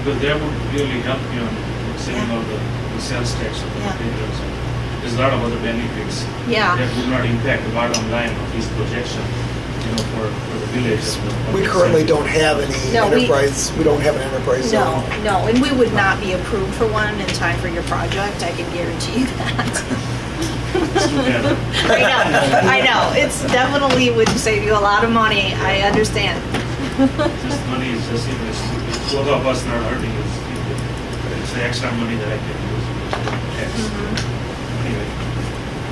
Because that would really help you in saving all the, the sales tax of the Yeah. materials. There's a lot of other benefits Yeah, that would not impact the bottom line of this projection, you know, for, for the village. of- of We the currently city. don't have any No, we- enterprise, we don't have an enterprise no, zone. no, and we would not be approved for one in time for your project, I can guarantee you that. It's too bad. I know, I know, it's definitely would save you a lot of money, I understand. This money is just, it's, it's both of us not hurting, it's, it's the extra money that I can use for tax. Mm-hmm. Anyway,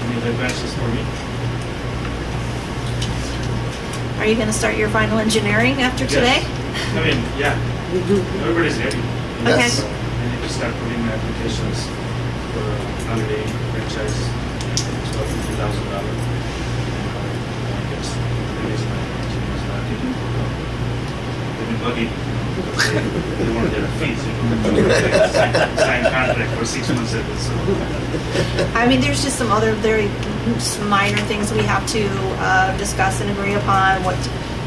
any other questions for me? Are you gonna start your final engineering after today? Yes. I mean, yeah, everybody's ready. Okay. Yes. I need to start putting in applications for holiday franchise, twelve fifty thousand dollar. I guess, it is my, it's not even, they've been bugging, they they want their fees, you know. Sign- Sign contract for six months at this, so. I mean, there's just some other very s- minor things we have to uh, discuss and agree upon, what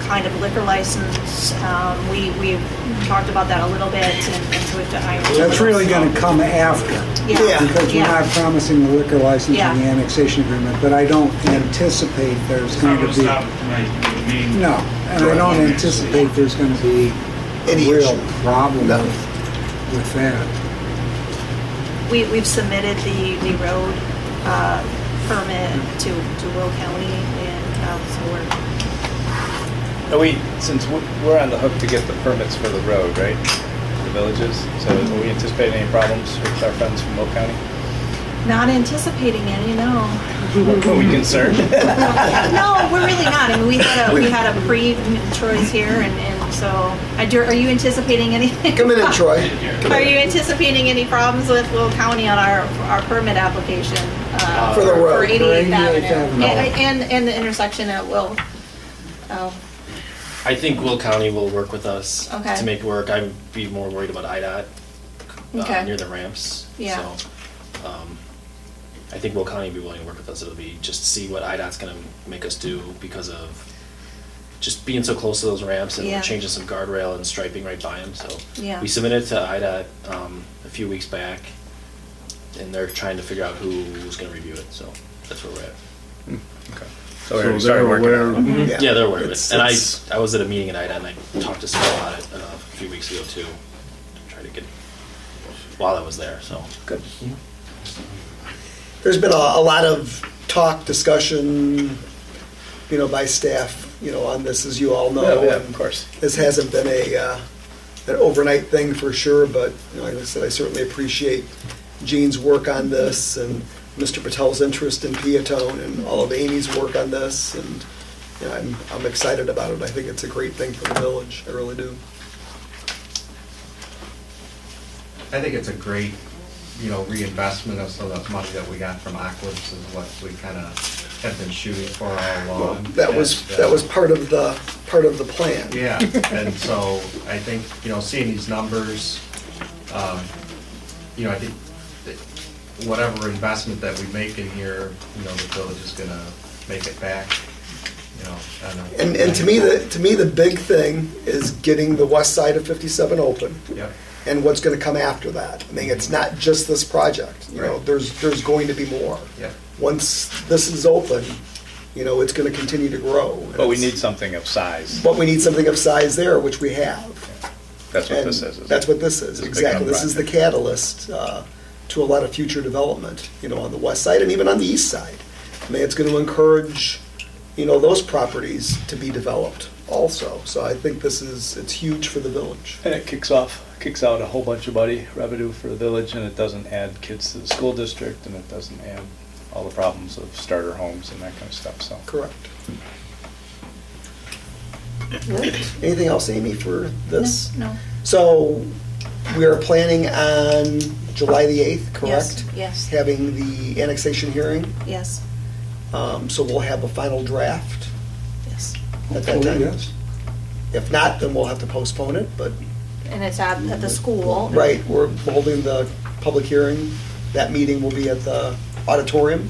kind of liquor license. um, We, we've talked about that a little bit and and so we have to iron. That's really going to come after, Yeah, because we're not yeah. promising the liquor license Yeah. in the annexation agreement, but I don't anticipate there's It's not going gonna to be, stop my main. no, and I don't anticipate there's going to be Any a real issue. problem No. with with that. We, we've submitted the, the road uh, permit to, to Will County and um, so we're, Are we, since we- we're on the hook to get the permits for the road, right? The villages, so are we anticipating any problems with our friends from Will County? not anticipating any, no. Are we concerned? No, we're really not. I mean, we had a, we had a pre, Troy's here and, and so, I do- are you anticipating anything? Come in and Troy. Come Are in. you anticipating any problems with Will County on our, our permit application? uh, For the road. For 88th 88th Avenue? Avenue. And, and- and the intersection at Will? Oh, I think Will County will work with us Okay. to make it work. I'd be more worried about IDOT uh, Okay. near the ramps. Yeah. So, um, I think Will County will be willing to work with us. It'll be just see what IDOT's going to make us do because of just being so close to those ramps and Yeah. we're changing some guardrail and striping right by them. So Yeah. we submitted to IDOT um, a few weeks back, and they're trying to figure out who's going to review it. So that's where we're at. So we already started working on it. Yeah. Yeah, they're aware of Mm-hmm. It's- it. And I, it's- I was at a meeting at IDA and I talked to someone about it uh, a few weeks ago too. Tried to get, while I was there, so. Good. There's been a, a lot of talk, discussion, you know, by staff, you know, on this, as you all know. No, yeah, and of course. This hasn't been a, uh, an overnight thing for sure, but, you know, like I said, I certainly appreciate Gene's work on this and Mr. Patel's interest in Peatone and all of Amy's work on this, and, you know, I'm, I'm excited about it. I think it's a great thing for the village, I really do. I think it's a great, you know, reinvestment of some of that money that we got from Aquas is what we kind of have been shooting for all Well, along. That was, And, uh, that was part of the, part of the plan. Yeah, and so I think, you know, seeing these numbers, um, you know, I think that whatever investment that we make in here, you know, the village is gonna make it back, you know. on a- And, and to me, the, to me, the big thing is getting the west side of 57 open Yep. and what's gonna come after that. I mean, it's not just this project, you know, Right. there's, there's going to be more. Yep. Once this is open, you know, it's gonna continue to grow. and But we it's- need something of size. But we need something of size there, which we have. That's what And this is. isn't That's it? what this is, This is a big exactly. This is the project. catalyst uh, to a lot of future development, you know, on the west side and even on the east side. I mean, it's going to encourage, you know, those properties to be developed also. So I think this is, it's huge for the village. And it kicks off, kicks out a whole bunch of money, revenue for the village, and it doesn't add kids to the school district, and it doesn't add all the problems of starter homes and that kind of stuff, so. Correct. Anything else, Amy, for this? no. So we are planning on July the 8th, correct? Yes, yes. Having the annexation hearing, yes, Um, so we'll have a final draft yes. at that Hopefully, time. Oh, yes. If not, then we'll have to postpone it, but, And it's at, at the school. right, we're holding the public hearing. That meeting will be at the auditorium.